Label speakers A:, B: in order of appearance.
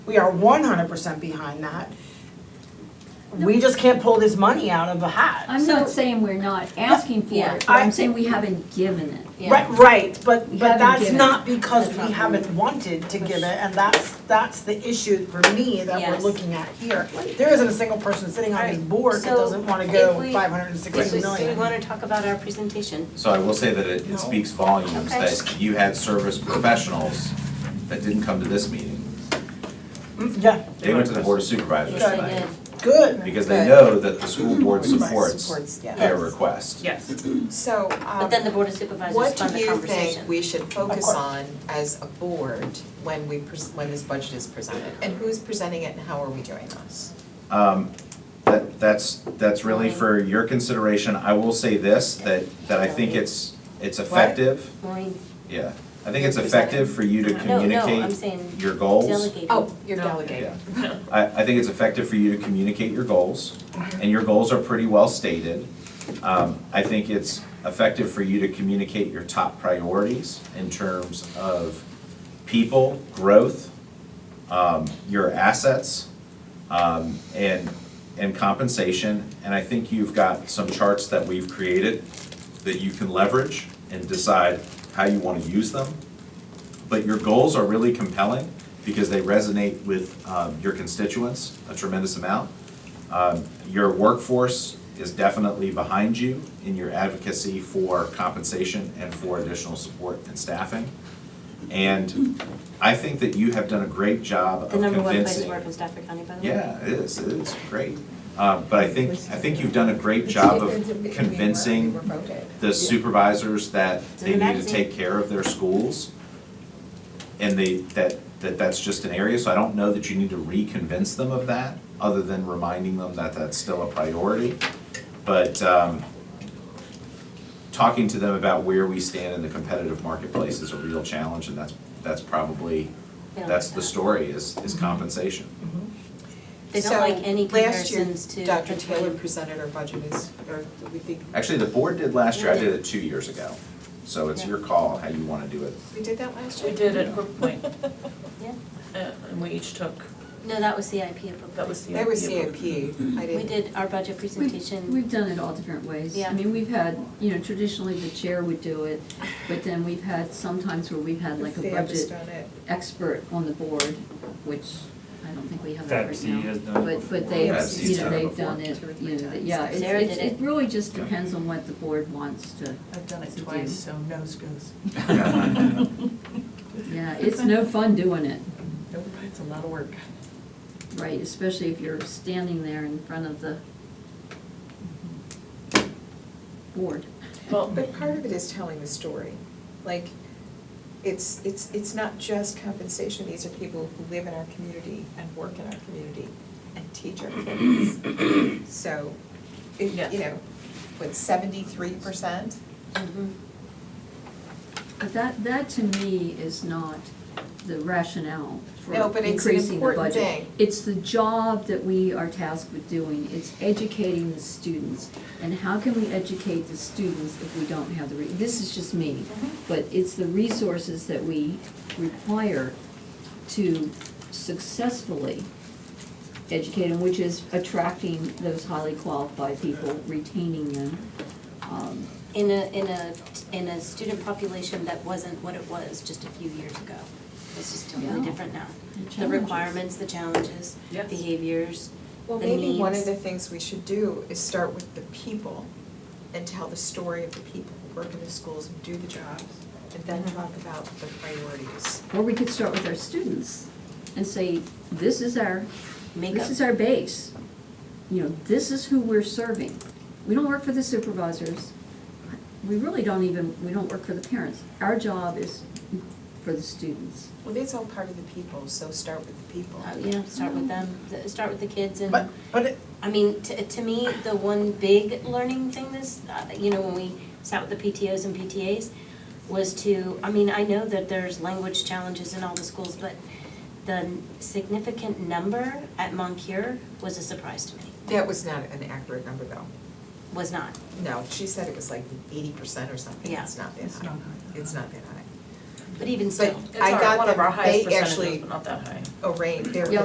A: We are one hundred percent behind that. We just can't pull this money out of a hat.
B: I'm not
C: So-
B: saying we're not asking for
C: Yeah.
B: it, but
A: I-
B: I'm saying we haven't given it.
C: Yeah.
A: Right, right, but
B: We
A: but
B: haven't
A: that's
B: given.
A: not because
C: That's
A: we
C: not
A: haven't wanted to give it, and that's that's the issue for me that we're
C: Yes.
A: looking at here. There isn't a single person sitting on this
C: Alright,
A: board that
C: so
A: doesn't wanna
C: if
A: go
C: we-
A: five hundred and
C: Do
A: sixty
C: we-
A: million.
C: do we want to talk about our presentation?
D: So I will say that it,
A: No.
D: it speaks volumes
C: Okay.
D: that you had service professionals that didn't come to this meeting.
A: Mm, Yeah,
D: They went to the board of supervisors
A: Yes, I
D: tonight
A: good.
D: because they
E: Good.
D: know that the school board supports
E: Supports, yeah.
D: their request.
F: Yes.
E: So,
C: But
E: um,
C: then the Board of Supervisors
E: what
C: fund
E: do
C: the
E: you
C: conversation.
E: think we should
A: Of
E: focus
A: course.
E: on as a board when we, pres- when this budget is presented? And who's presenting it and how are we doing this?
D: Um, that, that's, that's really for your consideration. I will say this, that, that I think it's, it's effective.
C: Maureen,
D: Yeah, I think it's effective for you to
C: No, no, I'm
D: communicate
C: saying
D: your goals.
C: delegating.
E: Oh, you're
F: No.
E: delegating.
D: Yeah. I, I think it's effective for you to communicate your goals, and your goals are pretty well stated. Um, I think it's effective for you to communicate your top priorities in terms of people, growth, um, your assets, um, and, and compensation. And I think you've got some charts that we've created that you can leverage and decide how you want to use them but your goals are really compelling because they resonate with um, your constituents a tremendous amount. Um, Your workforce is definitely behind you in your advocacy for compensation and for additional support and staffing. And I think that you have done a great job of
C: The number one place to
D: convincing.
C: work in Stafford County, by the way.
D: Yeah, it is, it is great. Uh, But I think, I think you've done a great job of convincing the supervisors that they
C: It's in the
D: need to
C: magazine.
D: take care of their schools. And they, that, that that's just an area, so I don't know that you need to reconvince them of that, other than reminding them that that's still a priority. But, um, talking to them about where we stand in the competitive marketplace is a real challenge, and that's, that's probably,
C: They don't
D: that's
C: like
D: the
C: that.
D: story, is, is compensation.
C: They don't like any comparisons
E: So
C: to.
E: last year, Dr.
C: between-
E: Taylor presented our budget as, or we think,
D: Actually, the board did last year, I did it two years ago, so it's your call how you wanna do it.
E: we did that last year?
F: We did at Hook Point,
C: Yeah,
F: uh, and we each took,
C: no, that was CIP appropriate.
F: that was the.
E: They were
F: idea.
E: CIP,
C: We
E: I didn't.
C: did our budget
B: We've-
C: presentation,
B: We've done it all different ways.
C: Yeah.
B: I mean, we've had, you know, traditionally the chair would do it, but then we've had sometimes where we've had like a
E: They have us
B: budget
E: done it.
B: expert on the board, which I don't think we have that right
G: FABC
B: now.
G: has done it
B: But, but
G: before.
B: they,
D: FABC's
B: you know,
D: done it
B: they've
D: before.
B: done it,
E: Two or three
B: you know,
E: times.
B: yeah, it's,
C: Sarah
B: it's-
C: did it.
B: it really just depends on what the board wants to,
F: I've done it
B: To do.
F: twice, so nose goes.
B: yeah, it's no fun doing it,
F: Nope, It's a lot of work.
B: right? Especially if you're standing there in front of the board.
F: Well,
E: But part of it is telling the story, like, it's, it's, it's not just compensation, these are people who live in our community and work in our community and teach our kids. So, it,
F: Yes.
E: you know, what, seventy-three percent?
C: Mhm.
B: But that, that to me is not the rationale for
E: No, but it's an
B: increasing the budget.
E: important thing.
B: It's the job that we are tasked with doing, it's educating the students. And how can we educate the students if we don't have the, re- this is just me,
E: Mm-hmm.
B: but it's the resources that we require to successfully educate them, which is attracting those highly qualified people, retaining them. Um,
C: in a, in a, in a student population that wasn't what it was just a few years ago. It's just totally
B: Yeah.
C: different now.
B: The
C: The
B: challenges.
C: requirements, the challenges,
F: Yes.
C: behaviors,
E: Well,
C: The
E: maybe one of
C: needs.
E: the things we should do is start with the people and tell the story of the people who work in the schools and do the jobs, and then talk about the priorities.
B: Or we could start with our students and say, this is our,
C: makeup.
B: this is our base. You know, this is who we're serving. We don't work for the supervisors. We really don't even, we don't work for the parents. Our job is for the students.
E: Well, that's all part of the people, so start with the people.
C: Uh, Yeah, start with them, th- start with the kids and.
A: But but it,
C: I mean, to, to me, the one big learning thing this, uh, you know, when we sat with the PTOs and PTAs was to, I mean, I know that there's language challenges in all the schools, but the significant number at Moncur was a surprise to me,
E: That was not an accurate number though.
C: was not.
E: No, she said it was like eighty percent or something,
C: Yeah.
E: it's not that high. It's not that high.
C: but even still.
E: I
F: It's our,
E: got
F: one of
E: them.
F: our highest
E: They
F: percentages,
E: actually-
F: but not that high.
E: arranged, they're
B: Yeah,